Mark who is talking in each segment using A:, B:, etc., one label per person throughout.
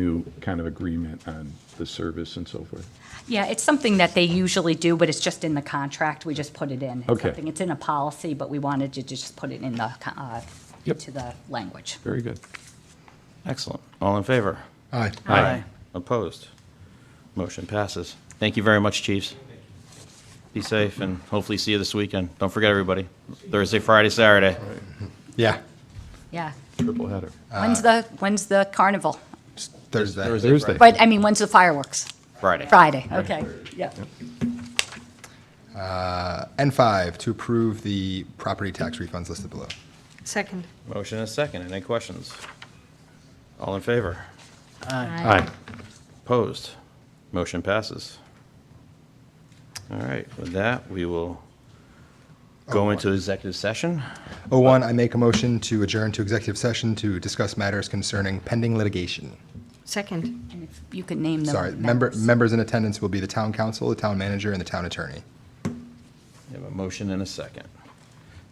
A: new kind of agreement on the service and so forth?
B: Yeah, it's something that they usually do, but it's just in the contract. We just put it in. It's
A: Okay.
B: something- It's in a policy, but we wanted to just put it in the, co- uh,
A: Yep.
B: into the language.
A: Very good.
C: Excellent. All in favor?
D: Aye.
C: Aye. Opposed? Motion passes. Thank you very much, chiefs. Be safe and hopefully see you this weekend. Don't forget, everybody, Thursday, Friday, Saturday.
D: Yeah.
B: Yeah.
A: Triple header.
D: Uh,
B: When's the, when's the carnival?
D: Thursday.
A: Thursday.
B: But, I mean, when's the fireworks?
C: Friday.
B: Friday, okay, yeah.
D: N5, to approve the property tax refunds listed below.
E: Second.
C: Motion and second. Any questions? All in favor?
A: Aye.
C: Opposed? Motion passes. All right, with that, we will go into executive session.
D: O1, Oh, I make a motion to adjourn to executive session to discuss matters concerning pending litigation.
E: Second.
B: And if You could name them.
D: Sorry, member, members in attendance will be the town council, the town manager, and the town attorney.
C: We have a motion and a second.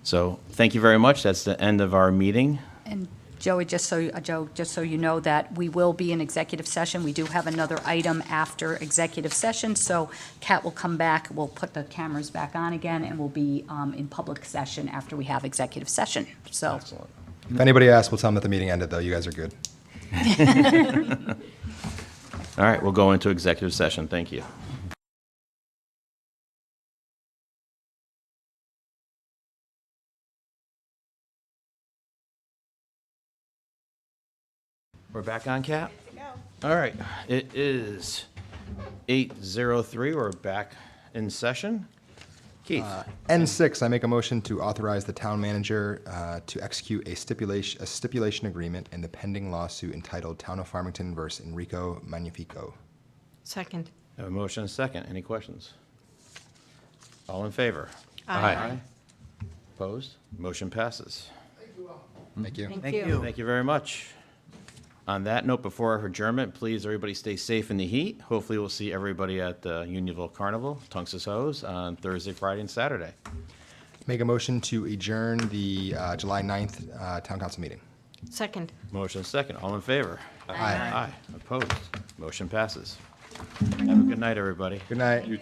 C: So thank you very much. That's the end of our meeting.
B: And Joey, just so, uh, Joe, just so you know that we will be in executive session. We do have another item after executive session, so Kat will come back, we'll put the cameras back on again, and we'll be um, in public session after we have executive session, so.
C: Excellent.
D: If anybody asks, we'll tell them that the meeting ended, though. You guys are good.
C: All right, we'll go into executive session. Thank you. We're back on, Cap. All right, it is 8:03. We're back in session. Keith,
D: N6, I make a motion to authorize the town manager uh, to execute a stipulation, a stipulation agreement in the pending lawsuit entitled Town of Farmington versus Enrico Magnifico.
E: Second.
C: I have a motion and a second. Any questions? All in favor?
E: Aye.
C: Opposed? Motion passes.
D: Thank you.
E: Thank you.
C: Thank you very much. On that note, before our adjournment, please, everybody stay safe in the heat. Hopefully, we'll see everybody at the Unionville Carnival, Tungus Hose, on Thursday, Friday, and Saturday.
D: Make a motion to adjourn the uh, July 9th uh, town council meeting.
E: Second.
C: Motion second, all in favor?
D: Aye.
C: Aye, opposed, motion passes. Have a good night, everybody.
D: Good night.